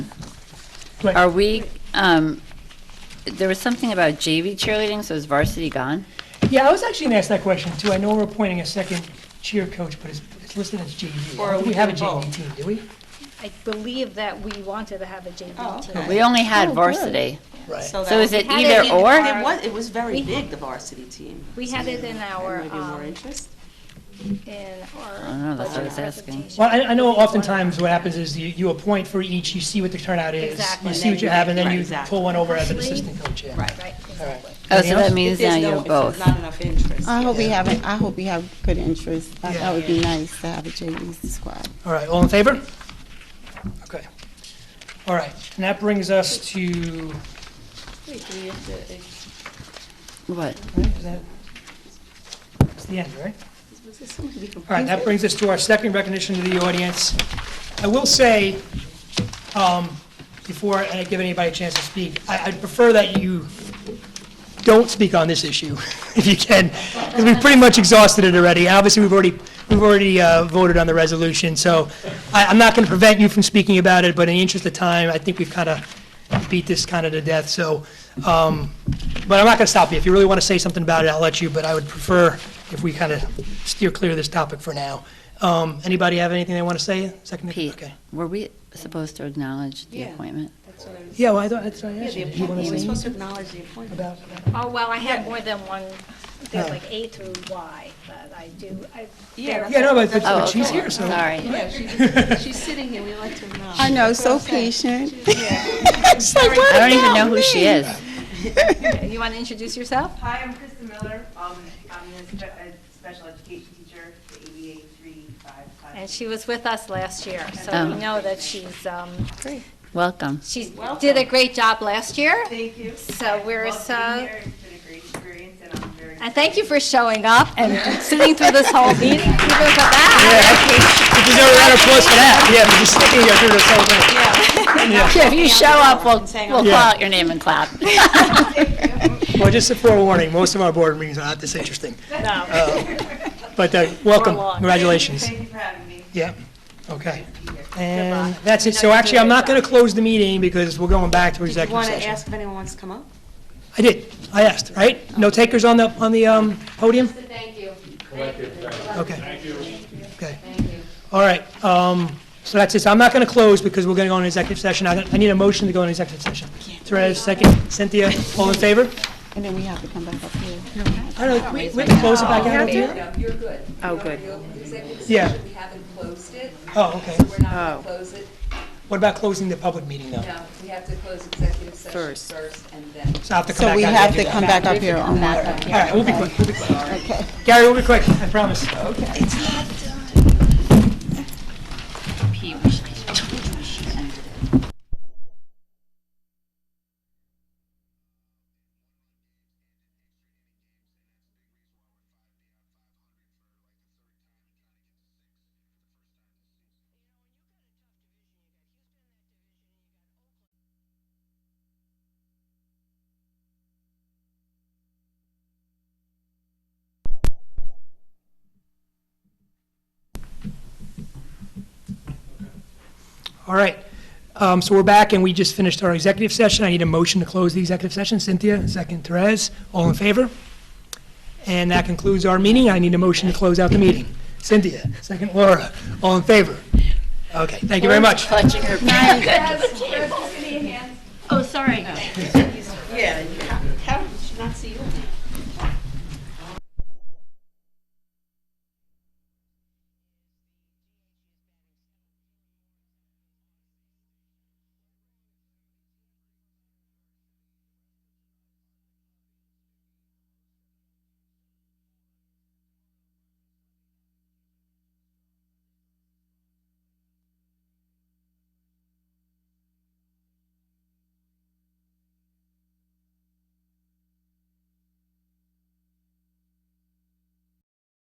Right. Are we, um, there was something about JV cheerleading, so is varsity gone? Yeah, I was actually gonna ask that question too. I know we're appointing a second cheer coach, but it's, it's listed as JV. Or I don't think we We have a do both. JV team, do we? I believe that we wanted to have a Oh, JV okay. team. We only had varsity. Right. So is it Had it either in or? our- It was, it was very We- big, the varsity team. We had it in There our, might be more um, interest. in don't know, our that's what I budget was asking. presentation. Well, I, I know oftentimes what happens is you, you appoint for each, you see what the turnout is. Exactly. You see what you have, and then Right, you exactly. pull one over as an Three. assistant coach, yeah. Right. Right, All right. exactly. Oh, so Anything else? that means If there's now no- you're if there's both. Um, Not enough interest. I hope we Yeah. have, a- I hope we have good interest. That- That would be nice to have a JV squad. All right, all in favor? Okay. All right, and that brings us to, Wait, do we have to, What? right, is that, that's the end, right? is this something to be completed? All right, that brings us to our second recognition to the audience. I will say, um, before I give anybody a chance to speak, I- I'd prefer that you don't speak on this issue, if you can, because we've pretty much exhausted it already. Obviously, we've already, we've already uh, voted on the resolution, so I- I'm not going to prevent you from speaking about it, but in the interest of time, I think we've kind of beat this kind of to death, so, um, but I'm not going to stop you. If you really want to say something about it, I'll let you, but I would prefer if we kind of steer clear of this topic for now. Um, Anybody have anything they want to say? Second, Pete, okay. were we supposed to acknowledge the Yeah. appointment? That's what I was- Yeah, well, I thought, that's what I Yeah, asked the you. Did you want appointment, to we're say supposed to acknowledge the appointment. about? Oh, well, I had more than one, there's Yeah. like A through Y, but I do, I, Yeah, that's Yeah, no, what- but- that's but what- she's here, so- Oh, Sorry. Yeah, she's, she's sitting here, we like to acknowledge. I know, That's what so I'm saying. patient. It's like, I don't even know who she is. you want to introduce yourself? Hi, I'm Krista Miller. Um, I'm the spe- uh, special education teacher, the ABA 355 class. And she was with us last year, so Oh. we know that she's, um, Welcome. she did a great job last year. Thank you. So we're Love being so- here. It's been a great experience, and I'm very And thank you for showing up and sitting through this whole meeting, even for that. You deserve a round of applause for that. Yeah, but just sticking here through this whole thing. If you show up, we'll, we'll call Yeah. out your name and clap. Well, just a forewarning, most of our board meetings are not this interesting. Uh, But uh, welcome, long. congratulations. Thank you for having me. Yeah, okay. And that's it, so actually, I'm not going to close the meeting because we're going back to Did you executive want to ask session. if anyone wants to come up? I did, I asked, right? No takers on the, on the um, podium? Okay. Thank you. Okay. All right, um, so that's it, so I'm not going to close because we're going to go into executive session. I I need a motion to go into executive session. Therese, second, Cynthia, all in favor? And then we have to come back up here. I don't know, we we can close it back out here? No, you're good. Oh, good. Executive Yeah. session, we haven't closed it. Oh, okay. So we're not going to close it. What about closing the public meeting though? No, we have to close executive session first and then. So I have to come So back we out have and do to that. come back up here on that. All right, we'll be quick, we'll be quick. Gary, we'll be quick, I promise. All right, um, so we're back and we just finished our executive session. I need a motion to close the executive session. Cynthia, second, Therese, all in favor? And that concludes our meeting. I need a motion to close out the meeting. Cynthia, second, Laura, all in favor? Okay, thank you very much. Clutching her. City hands. Oh, sorry. Yeah.